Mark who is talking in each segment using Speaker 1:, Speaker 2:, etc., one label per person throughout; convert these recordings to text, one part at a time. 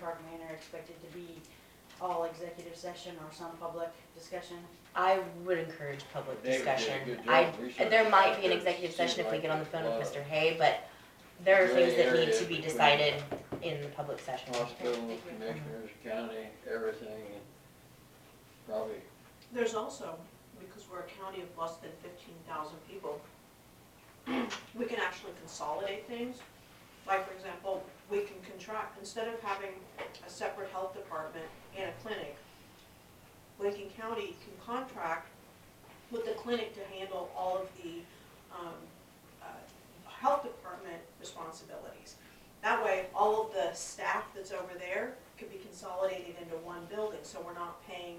Speaker 1: bargaining are expected to be all executive session or some public discussion.
Speaker 2: I would encourage public
Speaker 3: David did a
Speaker 2: discussion.
Speaker 3: good job
Speaker 2: I,
Speaker 3: researching
Speaker 2: there might be an
Speaker 3: that.
Speaker 2: executive session if we
Speaker 3: Seemed
Speaker 2: get on the
Speaker 3: like
Speaker 2: phone with
Speaker 3: there's a
Speaker 2: Mr. Hay, but there are things that
Speaker 3: gray
Speaker 2: need to
Speaker 3: area
Speaker 2: be
Speaker 3: between-
Speaker 2: decided in the public session.
Speaker 3: Hospitals, uh, commissioners, county, everything, and probably,
Speaker 4: There's also, because we're a county of less than fifteen thousand people, we can actually consolidate things. Like, for example, we can contract, instead of having a separate health department and a clinic, Lincoln County can contract with the clinic to handle all of the, um, uh, health department responsibilities. That way, all of the staff that's over there could be consolidated into one building, so we're not paying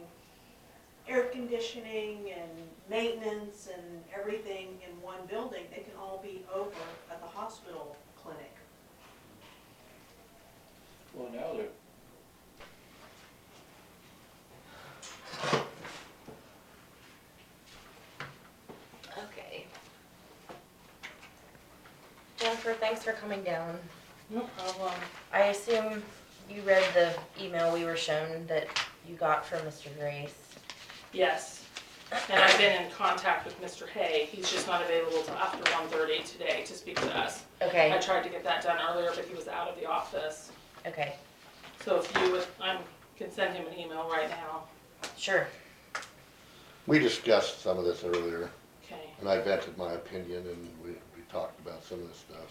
Speaker 4: air conditioning and maintenance and everything in one building, they can all be over at the hospital clinic.
Speaker 3: well, now they're.
Speaker 2: Okay. Jennifer, thanks for coming down.
Speaker 1: No problem.
Speaker 2: I assume you read the email we were shown that you got from Mr. Grace.
Speaker 5: Yes, and I've been in contact with Mr. Hay, he's just not available till after 1:30 today to speak to us. I
Speaker 2: Okay,
Speaker 5: tried to get that done earlier, but he was out of the office,
Speaker 2: okay,
Speaker 5: so if you would, I can send him an email right now,
Speaker 2: sure.
Speaker 6: We discussed some of this earlier,
Speaker 5: okay?
Speaker 6: and I vented my opinion, and we, we talked about some of this stuff.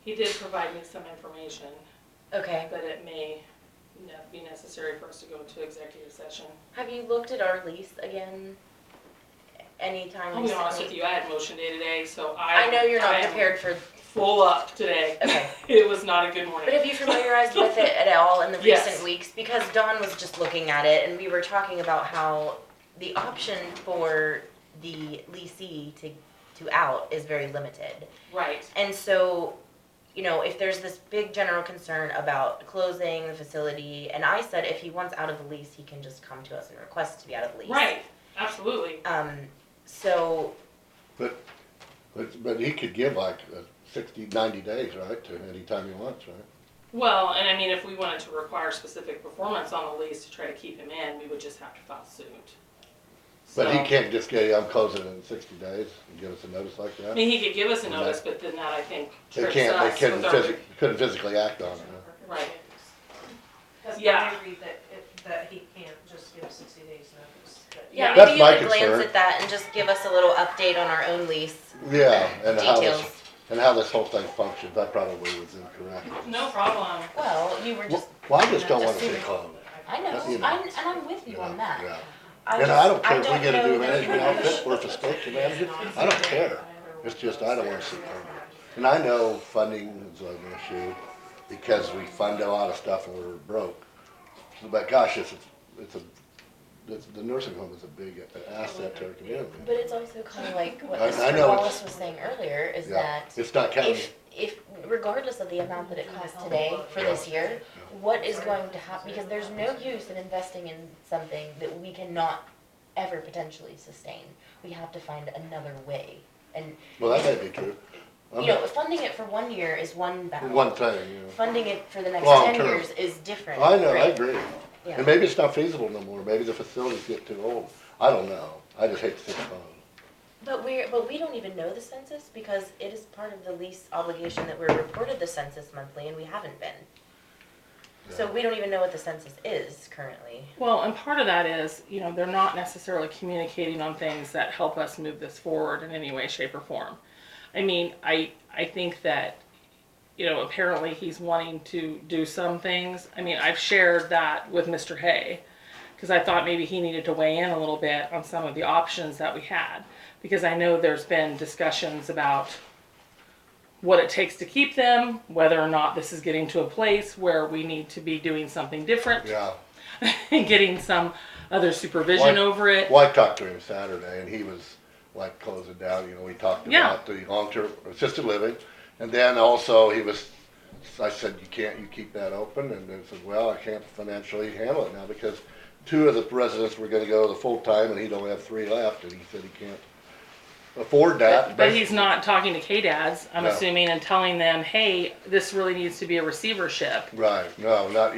Speaker 5: He did provide me some information,
Speaker 2: Okay.
Speaker 5: but it may ne- be necessary for us to go into executive session.
Speaker 2: Have you looked at our lease again? Anytime
Speaker 5: I'll be honest with
Speaker 2: recently?
Speaker 5: you, I had motion day today, so I.
Speaker 2: I know you're
Speaker 5: I
Speaker 2: not
Speaker 5: am
Speaker 2: prepared for,
Speaker 5: Full up today,
Speaker 2: okay.
Speaker 5: it was not a good morning.
Speaker 2: But have you familiarized with it at all in the
Speaker 5: Yes.
Speaker 2: recent weeks? Because Dawn was just looking at it and we were talking about how the option for the leasee to, to out is very limited.
Speaker 5: Right,
Speaker 2: And so, you know, if there's this big general concern about closing the facility, and I said if he wants out of the lease, he can just come to us and request to be out of the lease.
Speaker 5: right, absolutely.
Speaker 2: Um, so,
Speaker 6: But, but he could give like uh, sixty, ninety days, right, to any time he wants, right?
Speaker 5: Well, and I mean, if we wanted to require specific performance on the lease to try to keep him in, we would just have to file suit.
Speaker 6: But
Speaker 5: So-
Speaker 6: he can't just get, I'm closing in sixty days, and give us a notice like
Speaker 5: I
Speaker 6: that?
Speaker 5: mean, he could give us a notice, but then that, I think,
Speaker 6: They
Speaker 5: trips
Speaker 6: can't, they
Speaker 5: us
Speaker 6: couldn't
Speaker 5: with our.
Speaker 6: physically, couldn't physically act on it, huh?
Speaker 5: Right.
Speaker 7: Because when
Speaker 5: Yeah.
Speaker 7: I read that, it- that he can't just give sixty days notice, but
Speaker 2: yeah,
Speaker 5: Yeah.
Speaker 2: maybe
Speaker 6: That's
Speaker 2: you
Speaker 6: my
Speaker 2: could glance
Speaker 6: concern.
Speaker 2: at that and just give us a little update on our own lease
Speaker 6: Yeah, and how
Speaker 2: details.
Speaker 6: this, and how this whole thing functions, I probably was incorrect.
Speaker 5: No problem.
Speaker 2: Well, you were just,
Speaker 6: Wh- Well, I just don't wanna see
Speaker 2: Assuming-
Speaker 6: closed.
Speaker 2: I know,
Speaker 6: That's- you know.
Speaker 2: I'm, and I'm with you on that.
Speaker 6: Yeah.
Speaker 2: I
Speaker 6: And
Speaker 2: just-
Speaker 6: I don't care if we
Speaker 2: don't
Speaker 6: get a
Speaker 2: know that you
Speaker 6: new management
Speaker 2: would-
Speaker 6: outfit or if it's station manager, I don't care. It's just, I don't wanna see closed. And I know funding is an issue because we fund a lot of stuff and we're broke. But gosh, it's, it's a, it's, the nursing home is a big asset to our community.
Speaker 2: But it's also kind of like what
Speaker 6: I- I
Speaker 2: Mr.
Speaker 6: know
Speaker 2: Wallace
Speaker 6: it's-
Speaker 2: was saying earlier, is
Speaker 6: Yeah,
Speaker 2: that
Speaker 6: it's not counting,
Speaker 2: if, if, regardless of the amount that it costs today for this year, what is going to happen, because there's no use in investing in something that we cannot ever potentially sustain. We have to find another way, and,
Speaker 6: well, that may be true.
Speaker 2: you know, funding it for one year is one battle.
Speaker 6: One thing, you know.
Speaker 2: Funding it for the next
Speaker 6: Long
Speaker 2: ten
Speaker 6: term.
Speaker 2: years is different.
Speaker 6: I know, I
Speaker 2: right?
Speaker 6: agree.
Speaker 2: Yeah.
Speaker 6: And maybe it's not feasible no more, maybe the facilities get too old. I don't know, I just hate to see it closed.
Speaker 2: But we're, but we don't even know the census because it is part of the lease obligation that we're reported the census monthly and we haven't been. So
Speaker 6: Yeah.
Speaker 2: we don't even know what the census is currently.
Speaker 5: Well, and part of that is, you know, they're not necessarily communicating on things that help us move this forward in any way, shape, or form. I mean, I I think that, you know, apparently he's wanting to do some things. I mean, I've shared that with Mr. Hay because I thought maybe he needed to weigh in a little bit on some of the options that we had because I know there's been discussions about what it takes to keep them, whether or not this is getting to a place where we need to be doing something different
Speaker 6: Yeah.
Speaker 5: and getting some other supervision
Speaker 6: Why-
Speaker 5: over it.
Speaker 6: Well, I talked to him Saturday, and he was like closing down, you know, we talked
Speaker 5: Yeah.
Speaker 6: about the long-term assisted living, and then also he was, I said, you can't, you keep that open, and he said, well, I can't financially handle it now, because two of the residents were gonna go the full-time, and he'd only have three left, and he said he can't afford that.
Speaker 5: But, but he's not talking to K-dads, I'm
Speaker 6: No.
Speaker 5: assuming, and telling them, hey, this really needs to be a receivership.
Speaker 6: Right, no, not,